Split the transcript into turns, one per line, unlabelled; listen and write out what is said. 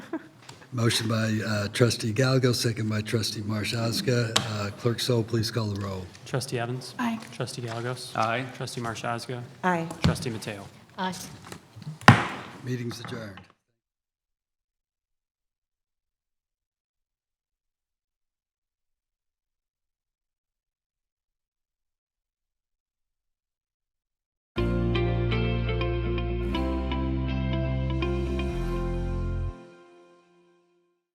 Motion by uh, trustee Gallego, second by trustee Marshowska. Uh, Clerk Sol, please call the roll.
Trustee Evans?
Aye.
Trustee Galagos?
Aye.
Trustee Marchazga?
Aye.
Trustee Mateo?
Aye.
Meeting's adjourned.